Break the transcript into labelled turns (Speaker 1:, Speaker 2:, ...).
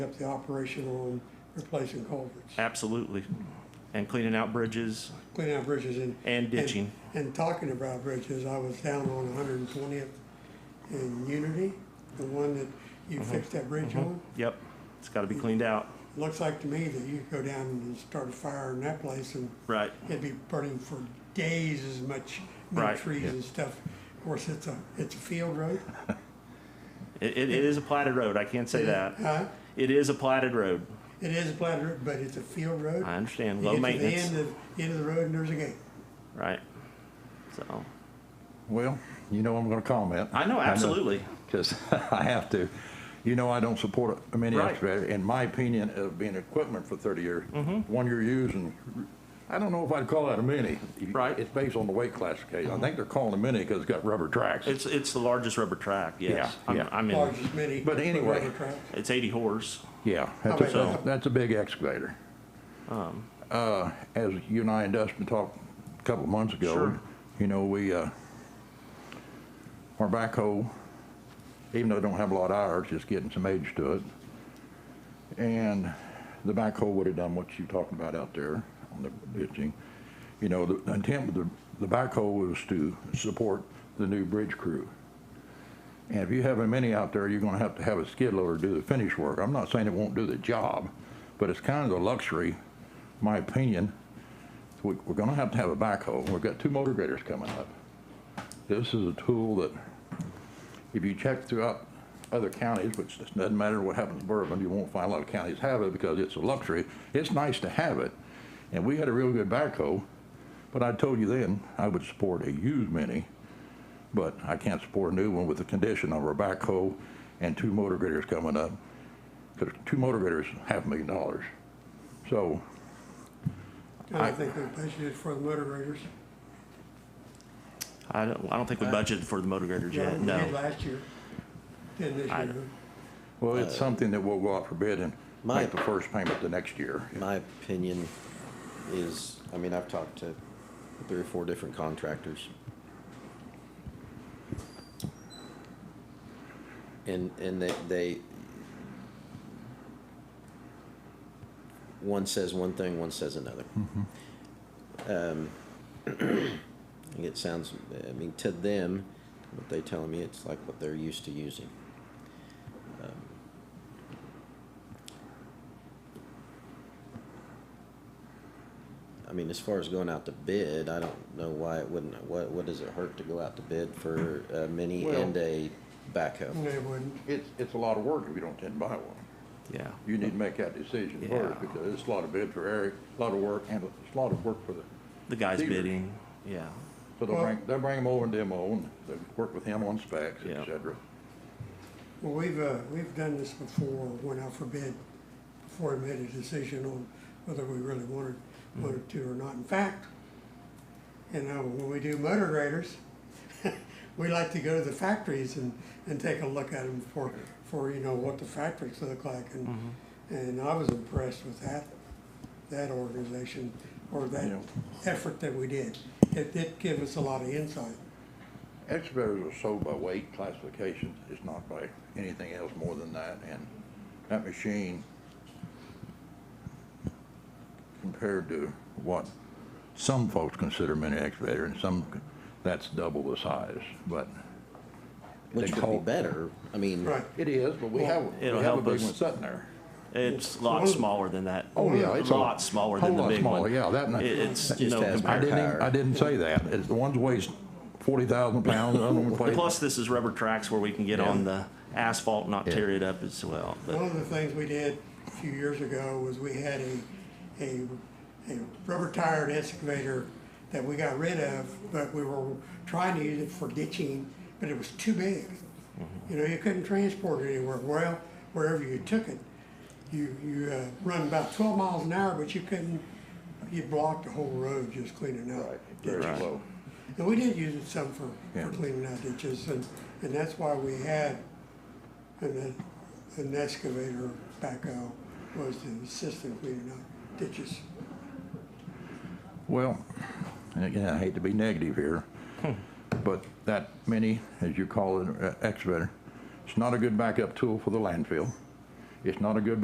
Speaker 1: up the operation on replacing culverts,
Speaker 2: Absolutely. And cleaning out bridges
Speaker 1: cleaning out bridges and.
Speaker 2: and ditching.
Speaker 1: And and talking about bridges, I was down on one hundred and twentieth in Unity, the one that you
Speaker 2: Uh-huh.
Speaker 1: fixed that bridge on.
Speaker 2: Yep, it's got to be cleaned out.
Speaker 1: Looks like to me that you could go down and start a fire in that place and
Speaker 2: Right.
Speaker 1: it'd be burning for days as much,
Speaker 2: Right,
Speaker 1: many trees
Speaker 2: yeah.
Speaker 1: and stuff. Of course, it's a, it's a field road.
Speaker 2: It, it it is a platted road, I can't say that.
Speaker 1: Huh?
Speaker 2: It is a platted road.
Speaker 1: It is a platted road, but it's a field road.
Speaker 2: I understand, low
Speaker 1: You get to the
Speaker 2: maintenance,
Speaker 1: end of, end of the road and there's a gate.
Speaker 2: right? So,
Speaker 3: Well, you know I'm going to comment.
Speaker 2: I know, absolutely.
Speaker 3: Because I have to. You know I don't support a mini
Speaker 2: Right.
Speaker 3: excavator. In my opinion, of being equipment for 30 years,
Speaker 2: Mm-hmm.
Speaker 3: one you're using, I don't know if I'd call that a mini.
Speaker 2: Right.
Speaker 3: It's based on the weight classification. I think they're calling a mini because it's got rubber tracks.
Speaker 2: It's, it's the largest rubber track, yes.
Speaker 3: Yeah,
Speaker 2: I'm,
Speaker 3: yeah.
Speaker 2: I'm in,
Speaker 1: Largest mini.
Speaker 3: But anyway.
Speaker 1: rubber tracks.
Speaker 2: it's eighty horse.
Speaker 3: Yeah,
Speaker 1: How
Speaker 3: that's a,
Speaker 1: about that?
Speaker 3: that's a big excavator. Uh, as you and I and Dustin talked a couple of months ago,
Speaker 2: Sure.
Speaker 3: you know, we uh, our backhoe, even though it don't have a lot of hours, just getting some age to it, and the backhoe would have done what you're talking about out there on the ditching. You know, the intent of the, the backhoe was to support the new bridge crew. And if you have a mini out there, you're gonna have to have a skid loader do the finish work. I'm not saying it won't do the job, but it's kind of a luxury, my opinion. We, we're gonna have to have a backhoe. We've got two motor graders coming up. This is a tool that, if you check throughout other counties, which doesn't matter what happens in Bourbon, you won't find a lot of counties have it because it's a luxury. It's nice to have it. And we had a real good backhoe, but I told you then, I would support a used mini but I can't support a new one with the condition of our backhoe and two motor graders coming up. Because two motor graders, half a million dollars. So,
Speaker 1: And I think we budgeted for the motor graders.
Speaker 2: I don't, I don't think we budgeted for the motor graders
Speaker 1: Uh-huh. Yeah,
Speaker 2: yet,
Speaker 1: we did
Speaker 2: no.
Speaker 1: last year, did this
Speaker 2: I-
Speaker 1: year.
Speaker 3: well,
Speaker 2: Uh,
Speaker 3: it's something that we'll go out for bid and
Speaker 4: my-
Speaker 3: make the first payment the next year.
Speaker 4: My opinion is, I mean, I've talked to three or four different contractors. And, and they, they, one says one thing, one says another.
Speaker 3: Mm-hmm.
Speaker 4: Um, I think it sounds, I mean, to them, what they telling me, it's like what they're used to using. Um, I mean, as far as going out to bid, I don't know why it wouldn't, what, what does it hurt to go out to bid for a mini
Speaker 3: Well-
Speaker 4: and a
Speaker 1: No,
Speaker 4: backhoe?
Speaker 1: they wouldn't.
Speaker 3: It's, it's a lot of work if you don't intend to buy one.
Speaker 2: Yeah,
Speaker 3: You need to make that decision
Speaker 2: Yeah.
Speaker 3: first because it's a lot of bid for Eric, a lot of work, and it's a lot of work for the,
Speaker 2: the guy's
Speaker 3: Beaver.
Speaker 2: bidding, yeah.
Speaker 3: so they'll
Speaker 1: Well-
Speaker 3: bring, they'll bring him over and demo and they'll work with him on specs,
Speaker 2: Yeah.
Speaker 3: et cetera.
Speaker 1: Well, we've, uh, we've done this before, went out for bid, before we made a decision on whether we really wanted, wanted to or not. In fact, you know, when we do motor graders, we like to go to the factories and, and take a look at them for, for, you know, what the factories look like. And, and I was impressed with that, that organization, or that
Speaker 3: Yeah.
Speaker 1: effort that we did. It did give us a lot of insight.
Speaker 3: Excavators are sold by weight classification, it's not by anything else more than that, and that machine compared to what some folks consider mini excavator, and some, that's double the size, but
Speaker 4: Which
Speaker 3: They
Speaker 4: would be
Speaker 3: call-
Speaker 4: better, I mean.
Speaker 1: Right.
Speaker 3: it is, but we have, we
Speaker 2: It'll
Speaker 3: have a
Speaker 2: help
Speaker 3: big
Speaker 2: us.
Speaker 3: one sitting there.
Speaker 2: It's a lot
Speaker 1: Well-
Speaker 2: smaller than that.
Speaker 3: Oh, yeah, it's
Speaker 2: A
Speaker 3: a
Speaker 2: lot smaller than
Speaker 3: whole
Speaker 2: the
Speaker 3: lot
Speaker 2: big
Speaker 3: smaller,
Speaker 2: one.
Speaker 3: yeah, that one-
Speaker 2: It- It's, you
Speaker 4: Just
Speaker 2: know,
Speaker 4: has
Speaker 3: I
Speaker 2: compared-
Speaker 3: didn't, even-
Speaker 4: Higher.
Speaker 3: I didn't say that, it's, the ones weighs forty thousand pounds, the other one weighs.
Speaker 2: plus this is rubber tracks where we can get on the asphalt and not tear it up as well.
Speaker 1: One
Speaker 2: But
Speaker 1: of the things we did a few years ago was we had a, a, a rubber tired excavator that we got rid of, but we were trying to use it for ditching, but it was too big. You know, you couldn't transport it anywhere. Well, wherever you took it, you, you, uh, run about twelve miles an hour, but you couldn't, you blocked the whole road just cleaning out
Speaker 3: Right, very
Speaker 1: ditches.
Speaker 3: slow.
Speaker 1: And we did use it some for,
Speaker 3: Yeah.
Speaker 1: for cleaning out ditches, and, and that's why we had an, an excavator backhoe was to assist in cleaning out ditches.
Speaker 3: Well, and again, I hate to be negative here, but that mini, as you call it, uh, excavator, it's not a good backup tool for the landfill. It's not a good